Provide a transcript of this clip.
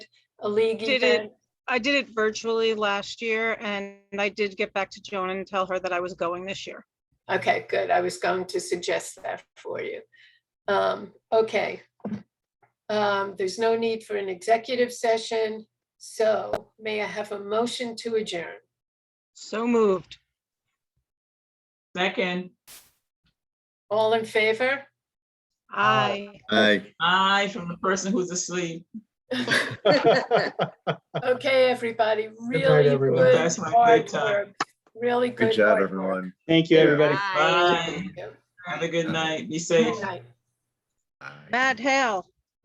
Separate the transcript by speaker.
Speaker 1: a league
Speaker 2: Did it-
Speaker 1: event.
Speaker 2: I did it virtually last year and I did get back to Joan and tell her that I was going this year.
Speaker 1: Okay, good. I was going to suggest that for you. Um, okay. Um, there's no need for an executive session, so may I have a motion to adjourn?
Speaker 2: So moved.
Speaker 3: Second,
Speaker 1: All in favor?
Speaker 2: Aye.
Speaker 4: Aye.
Speaker 3: aye from the person who's asleep.
Speaker 1: Okay, everybody,
Speaker 5: night,
Speaker 1: really
Speaker 5: everyone.
Speaker 1: good
Speaker 3: That's my
Speaker 1: hard
Speaker 3: bedtime.
Speaker 1: work, really good.
Speaker 4: Good job,
Speaker 1: hard work.
Speaker 4: everyone.
Speaker 5: Thank you,
Speaker 4: Yeah.
Speaker 5: everybody.
Speaker 3: Bye.
Speaker 1: Thank you.
Speaker 3: Have a good night. Be safe.
Speaker 1: Good night.
Speaker 4: Aye.
Speaker 2: Matt Hale.